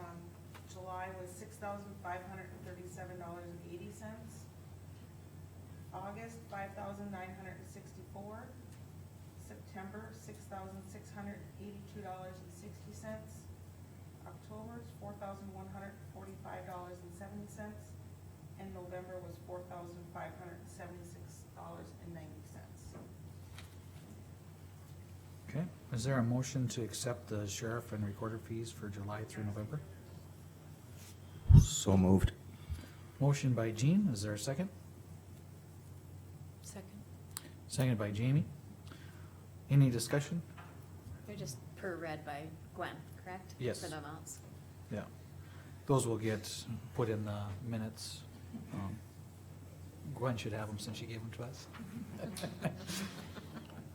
um, thousand five hundred and thirty-seven dollars and eighty cents. August, five thousand nine hundred and sixty-four. September, six thousand six hundred and eighty-two dollars and sixty cents. October's four thousand one hundred and forty-five dollars and seventy cents. And November was four thousand five hundred and seventy-six dollars and ninety cents. Okay, is there a motion to accept the sheriff and recorder fees for July through November? So moved. Motion by Jean, is there a second? Second. Second by Jamie. Any discussion? They're just per read by Gwen, correct? Yes. For the amounts. Yeah. Those will get put in the minutes. Um, Gwen should have them since she gave them to us.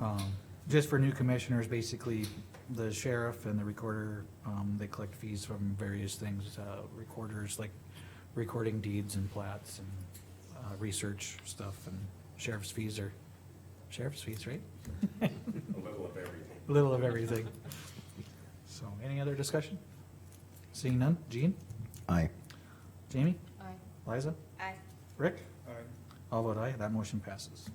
Um, Just for new commissioners, basically, the sheriff and the recorder, um, they collect fees from various things, uh, recorders, like recording deeds and plats and, uh, research stuff, and sheriff's fees are, sheriff's fees, right? A little of everything. Little of everything. So, any other discussion? Seeing none, Jean, Aye. Jamie, Aye. Liza, Aye. Rick? All vote aye, that motion passes.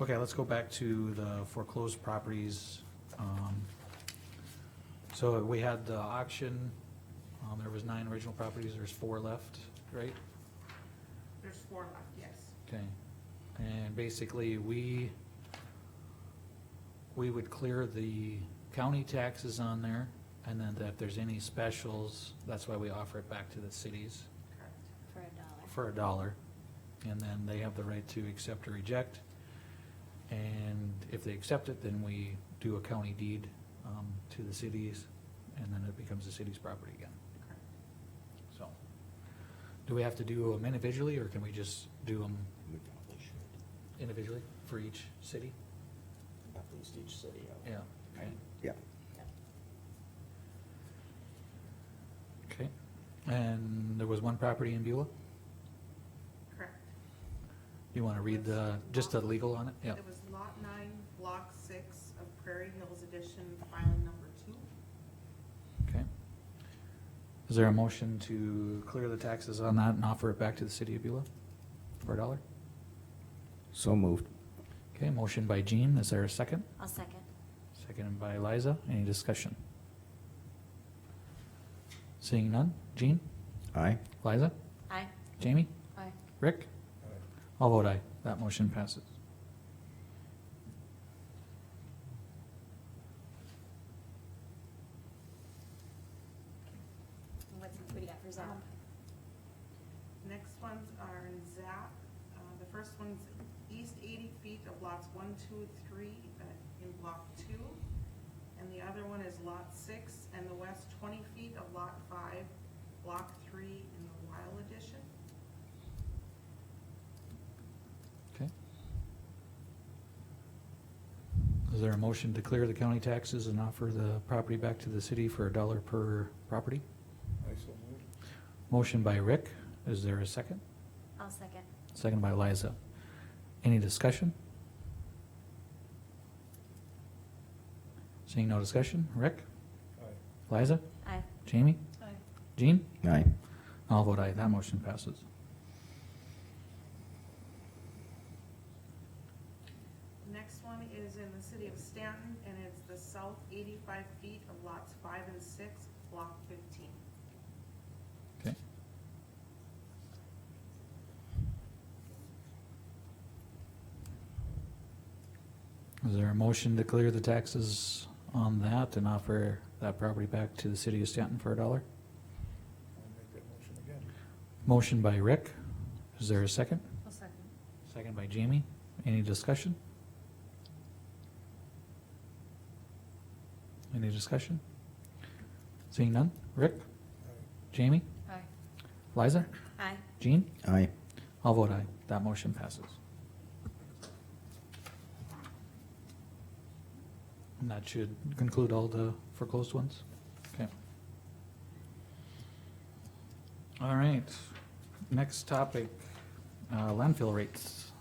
Okay, let's go back to the foreclosed properties. Um, So we had the auction, um, there was nine original properties, there's four left, right? There's four left, yes. Okay, and basically, we, we would clear the county taxes on there, and then if there's any specials, that's why we offer it back to the cities Correct. For a for dollar. a dollar, and then they have the right to accept or reject. And if they accept it, then we do a county deed um, to the cities, and then it becomes the city's property again, Correct. so. Do we have to do them individually, or can we just do them We probably should, individually for each city? at least each city. I would- Yeah, okay, Yeah. okay. And there was one property in Beulah? Correct. You want to read the, just the legal on it? Yeah, It was lot nine, block six of Prairie Hills Edition, filing number two. okay. Is there a motion to clear the taxes on that and offer it back to the city of Beulah for a dollar? So moved. Okay, motion by Jean, is there a second? I'll second. Seconded by Liza, any discussion? Seeing none, Jean, Aye. Liza, Aye. Jamie, Aye. Rick? All vote aye, that motion passes. What's, what do you got for Zap? Next ones are in ZAP. Uh, The first one's east eighty feet of lots one, two, and three uh, in block two. And the other one is lot six and the west twenty feet of lot five, block three in the Wild Edition. Okay. Is there a motion to clear the county taxes and offer the property back to the city for a dollar per property? Motion by Rick, is there a second? I'll second. Second by Liza. Any discussion? Seeing no discussion, Rick? Liza? Aye. Jamie? Aye. Jean? Aye. I'll vote aye, that motion passes. Next one is in the city of Stanton and it's the south eighty-five feet of lots five and six, block fifteen. Okay. Is there a motion to clear the taxes on that and offer that property back to the city of Stanton for a dollar? Motion by Rick. Is there a second? I'll second. Second by Jamie. Any discussion? Any discussion? Seeing none? Rick? Jamie? Aye. Liza? Aye. Jean? Aye. I'll vote aye. That motion passes. And that should conclude all the foreclosed ones? Okay. All right, next topic, uh, landfill rates.